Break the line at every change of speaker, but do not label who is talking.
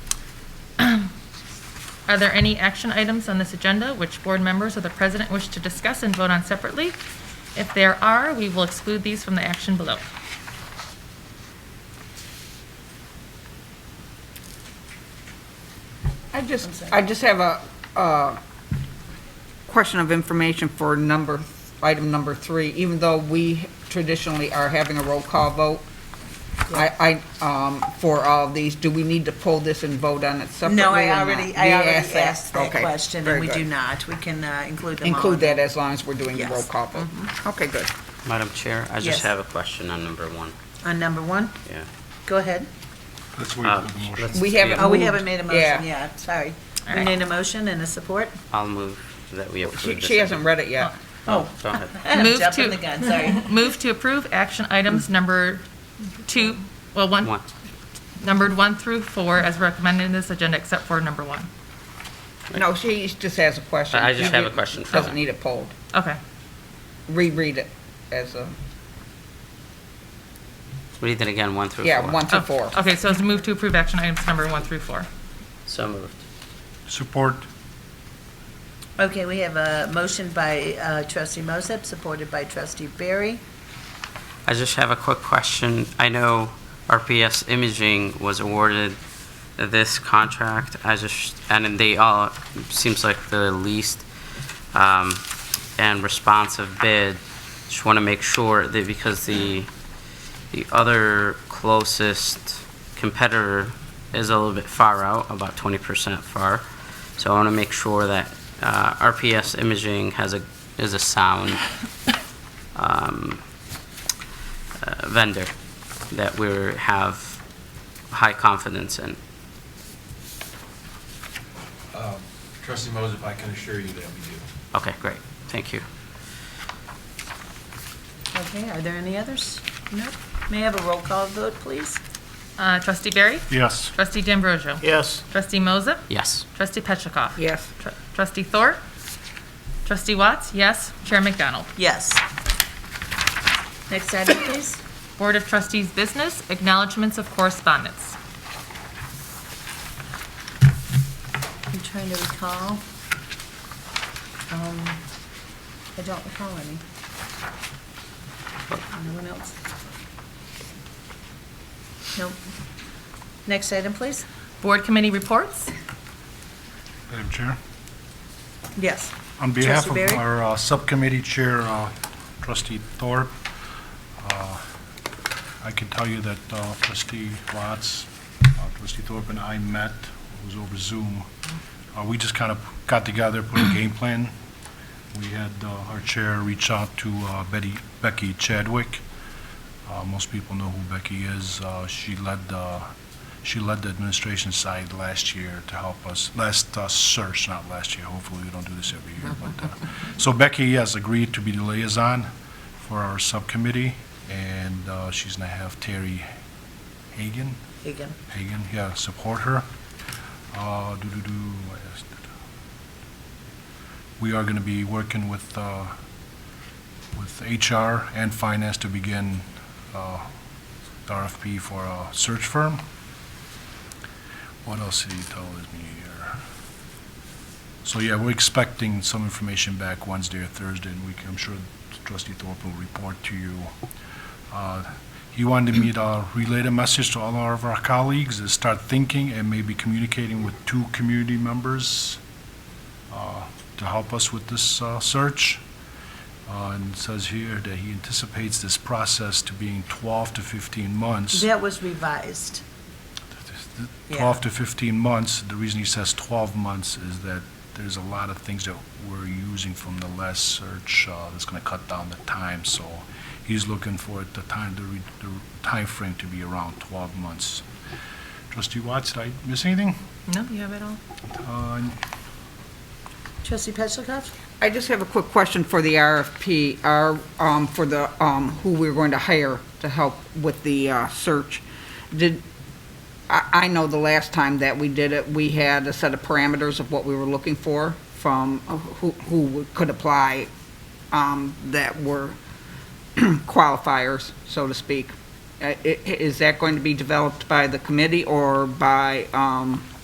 Are there any action items on this agenda which board members or the president wish to discuss and vote on separately? If there are, we will exclude these from the action below.
I just, I just have a, uh, question of information for number, item number three, even though we traditionally are having a roll call vote. I, I, um, for all of these, do we need to pull this and vote on it separately or
No, I
not?
already,
We
I already
that.
asked that
Okay,
question,
very
and we
good.
do not. We can uh, include them all.
Include that as long as we're doing the
Yes. Mm-hmm.
roll call vote. Okay, good.
Madam Chair, I
Yes.
just have a question on number one.
On Uh, number one,
Yeah.
go ahead.
Let's wait
Uh,
for the motion.
let's-
We haven't
Oh, we
moved.
haven't made a motion yet, sorry.
All
We
right.
need a motion and a support?
I'll move that we approve
She,
this.
she hasn't read it yet.
Oh, go ahead.
Move
Jumping
to-
the gun, sorry.
Move to approve action items number two, well,
Oh.
one,
One.
numbered one through four as recommended in this agenda except for number one.
No, she just has a question.
I just
She
have a question for
Doesn't
her.
need it polled.
Okay.
Reread it as a,
Read it again, one through four.
yeah, one
Oh,
to four.
Okay, so it's move to approve action items number one through four.
So moved.
Support,
Okay, we have a motion by uh, trustee Moses, supported by trustee Barry.
I just have a quick question. I know RPS Imaging was awarded this contract. I just, and they all, seems like the least um, and responsive bid. Just want to make sure that because the, the other closest competitor is a little bit far out, about 20% far. So I want to make sure that uh, RPS Imaging has a, is a sound um, uh, vendor that we have high confidence in.
Trustee Moses, I can assure you that we do.
Okay, great, thank you.
Okay, are there any others? No. May I have a roll call vote, please?
Uh, Trustee Barry?
yes.
Trustee D'Ambrosio?
yes,
Trustee Moses?
Yes,
Trustee Petrichoff?
Yes.
Tr- Trustee Thor? Trustee Watts? Yes. Chair McDonald?
Yes. Next item, please.
Board of Trustees Business, acknowledgements of correspondence.
I'm trying to recall. Um, I don't recall any. Anyone else? Nope. Next item, please?
Board committee reports.
Madam Chair.
Yes.
On behalf of
Trustee Barry?
our uh, subcommittee chair, uh, trustee Thorpe, uh, I can tell you that uh, trustee Watts, uh, trustee Thorpe and I met, it was over Zoom. Uh, We just kind of got together, put a game plan. We had uh, our chair reach out to uh, Betty, Becky Chadwick. Uh, Most people know who Becky is. Uh, She led, uh, she led the administration side last year to help us, last uh, search, not last year, hopefully we don't do this every year, but, uh, so Becky has agreed to be the liaison for our subcommittee, and uh, she's gonna have Terry Hagan,
Hagan.
Hagan, yeah, support her. Uh, do-do-do, what else did- uh, We are gonna be working with, uh, with HR and finance to begin, uh, RFP for a search firm. What else did he tell me here? So, yeah, we're expecting some information back Wednesday or Thursday, and we can, I'm sure trustee Thorpe will report to you. Uh, He wanted me to relay a message to all of our colleagues, to start thinking and maybe communicating with two community members uh, to help us with this uh, search. Uh, And it says here that he anticipates this process to being 12 to 15 months.
That was revised.
12 to 15 months, the reason he says 12 months is that there's a lot of things that we're using from the last search uh, that's going to cut down the time, so he's looking for the time, the re- the timeframe to be around 12 months. Trustee Watts, did I miss anything?
No, you have it all.
Uh,
Trustee Petlicoff?
I just have a quick question for the RFP, our, um, for the, um, who we're going to hire to help with the, uh, search. Did, I, I know the last time that we did it, we had a set of parameters of what we were looking for from uh, who, who would- could apply, um, that were qualifiers, so to speak. Uh, i- i- Is that going to be developed by the committee or by, um,